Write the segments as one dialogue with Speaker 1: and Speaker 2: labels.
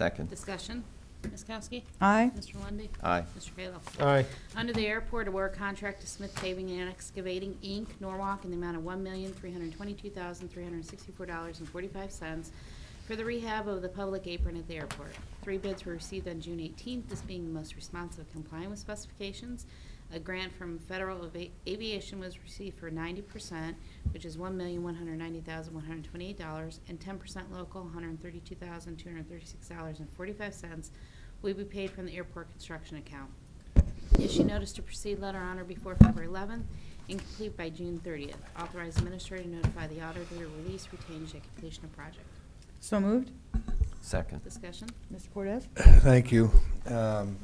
Speaker 1: Second.
Speaker 2: Discussion. Ms. Kowski?
Speaker 3: Aye.
Speaker 2: Mr. Lundey?
Speaker 1: Aye.
Speaker 2: Mr. Kayla?
Speaker 4: aye,
Speaker 2: Under the airport, award contract to Smith Paving and Excavating, Inc., Norwalk, in the amount of $1,322,364.45 for the rehab of the public apron at the airport. Three bids were received on June 18th, this being the most responsive complying with specifications. A grant from Federal Ava- Aviation was received for 90%, which is $1,190,128, and 10% local, $132,236.45, will be paid from the airport construction account. Issue notice to proceed letter on or before February 11th and complete by June 30th. Authorize administrator to notify the auditor to release retained at completion of project.
Speaker 3: So moved.
Speaker 1: Second.
Speaker 2: Discussion?
Speaker 3: Mr. Cortez?
Speaker 4: Thank you. Um,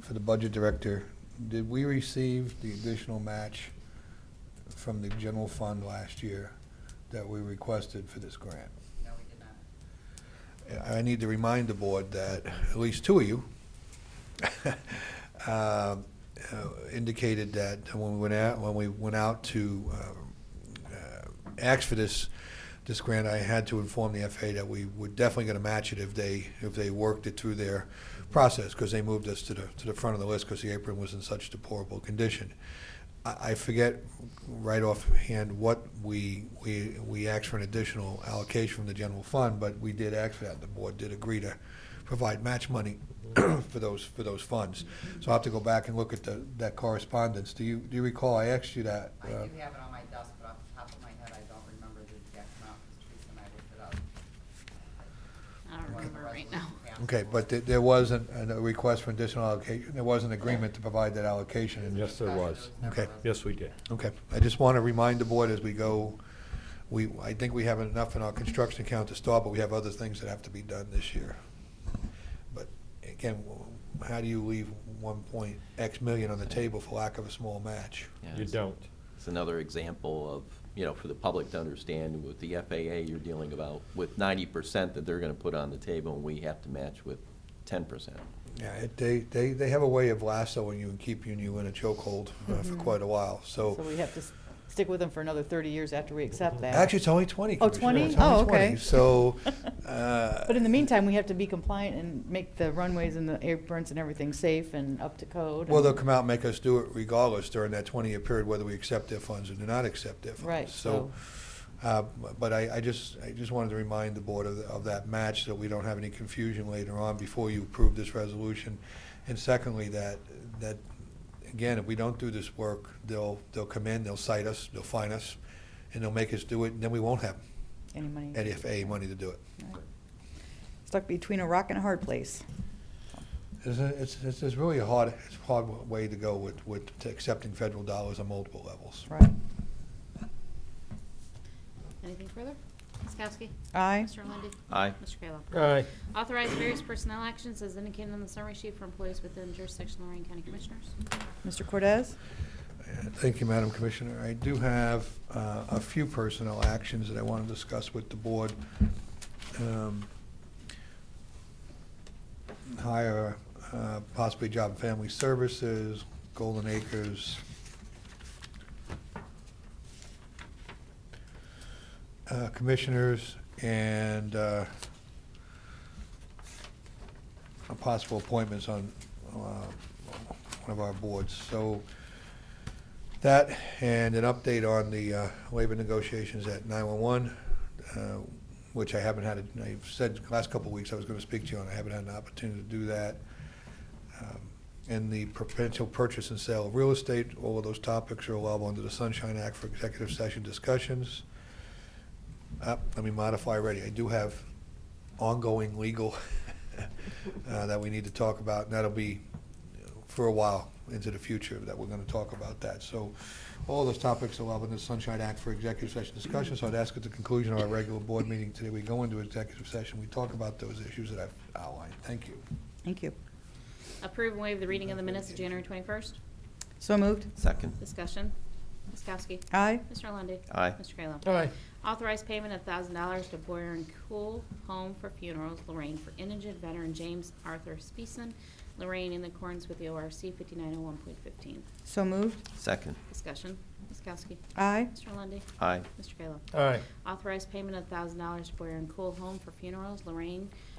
Speaker 4: For the Budget Director, did we receive the additional match from the general fund last year that we requested for this grant?
Speaker 5: No, we did not.
Speaker 4: I need to remind the board that at least two of you um, uh, indicated that when we went out, when we went out to um, uh, ask for this, this grant, I had to inform the FAA that we were definitely going to match it if they, if they worked it through their process, because they moved us to the, to the front of the list because the apron was in such deplorable condition. I I forget right offhand what we, we, we asked for an additional allocation from the general fund, but we did ask for that. The board did agree to provide match money for those, for those funds. So I'll have to go back and look at the, that correspondence. Do you, do you recall I asked you that?
Speaker 5: I
Speaker 4: uh,
Speaker 5: do have it on my desk, but off the top of my head, I don't remember the exact amount, because Teresa and I looked it up.
Speaker 2: I don't
Speaker 5: One of the
Speaker 2: remember right now.
Speaker 5: resolution
Speaker 4: Uh,
Speaker 5: passed.
Speaker 4: Okay, but there- there wasn't an- a request for additional allocation, there was an agreement to provide that allocation. in-
Speaker 6: Yes, there
Speaker 5: Because
Speaker 6: was.
Speaker 5: never
Speaker 4: Okay.
Speaker 5: a resolution.
Speaker 6: Yes, we did.
Speaker 4: Okay, I just want to remind the board as we go, we, I think we have enough in our construction account to start, but we have other things that have to be done this year. But again, w- how do you leave one point X million on the table for lack of a small match?
Speaker 1: Yeah,
Speaker 6: You
Speaker 1: it's-
Speaker 6: don't.
Speaker 1: It's another example of, you know, for the public to understand with the FAA, you're dealing about with ninety percent that they're gonna put on the table and we have to match with ten percent.
Speaker 4: Yeah, it- they, they, they have a way of lassoing you and keeping you in a chokehold uh, for quite a while,
Speaker 3: Mm-hmm. So we have to s- stick with them for another 30 years after we accept that.
Speaker 4: Actually, it's only 20.
Speaker 3: Oh,
Speaker 4: Commissioner.
Speaker 3: 20?
Speaker 4: It's only
Speaker 3: Oh, okay.
Speaker 4: 20. So. uh,
Speaker 3: But in the meantime, we have to be compliant and make the runways and the aprons and everything safe and up to code.
Speaker 4: Well,
Speaker 3: and-
Speaker 4: they'll come out and make us do it regardless during that 20-year period, whether we accept their funds or do not accept their funds.
Speaker 3: Right, so,
Speaker 4: uh, But I I just, I just wanted to remind the board of of that match, so we don't have any confusion later on before you approve this resolution. And secondly, that, that, again, if we don't do this work, they'll, they'll come in, they'll cite us, they'll fine us, and they'll make us do it, and then we won't have
Speaker 3: any money.
Speaker 4: any FAA money to do it.
Speaker 3: Mm-hmm. Right. Stuck between a rock and a hard place.
Speaker 4: It's, a- it's, it's it's really a hard, it's a hard way to go with, with to accepting federal dollars on multiple levels.
Speaker 3: Right.
Speaker 2: Anything further? Ms. Kowski?
Speaker 3: Aye.
Speaker 2: Mr. Lundey?
Speaker 1: Aye.
Speaker 2: Mr. Kayla?
Speaker 4: Aye.
Speaker 2: Authorize various personnel actions as indicated on the summary sheet for employees within jurisdiction of Lorraine County Commissioners.
Speaker 3: Mr. Cortez?
Speaker 4: Thank you, Madam Commissioner. I do have uh, a few personnel actions that I want to discuss with the board. Um, Hire, uh, possibly Job and Family Services, Golden Acres. Uh, Commissioners and uh, possible appointments on uh, one of our boards. So that and an update on the uh, labor negotiations at 911, uh, which I haven't had, a- I've said the last couple of weeks I was going to speak to you on, I haven't had an opportunity to do that. Um, And the potential purchase and sale of real estate, all of those topics are allowable under the Sunshine Act for executive session discussions. Uh, Let me modify already, I do have ongoing legal uh, that we need to talk about, and that'll be for a while into the future that we're going to talk about that. So all those topics are up in the Sunshine Act for executive session discussion, so I'd ask at the conclusion of our regular board meeting today, we go into executive session, we talk about those issues that I've outlined. Thank you.
Speaker 3: Thank you.
Speaker 2: Approve and waive the reading of the minutes of January 21st.
Speaker 3: So moved.
Speaker 1: Second.
Speaker 2: Discussion. Ms. Kowski?
Speaker 3: Aye.
Speaker 2: Mr. Lundey?
Speaker 1: Aye.
Speaker 2: Mr. Kayla?
Speaker 4: right.
Speaker 2: Authorize payment of thousand dollars to Boyer and Cool Home for Funerals, Lorraine, for indigent veteran James Arthur Speeson, Lorraine, in accordance with the ORC fifty-nine oh one point fifteen.
Speaker 3: So moved.
Speaker 1: Second.
Speaker 2: Discussion. Ms. Kowski.
Speaker 3: Aye.
Speaker 2: Mr. Lundey.
Speaker 1: Aye.
Speaker 2: Mr. Kayla.
Speaker 4: All right.
Speaker 2: Authorize payment of thousand dollars to Boyer and Cool Home for Funerals, Lorraine,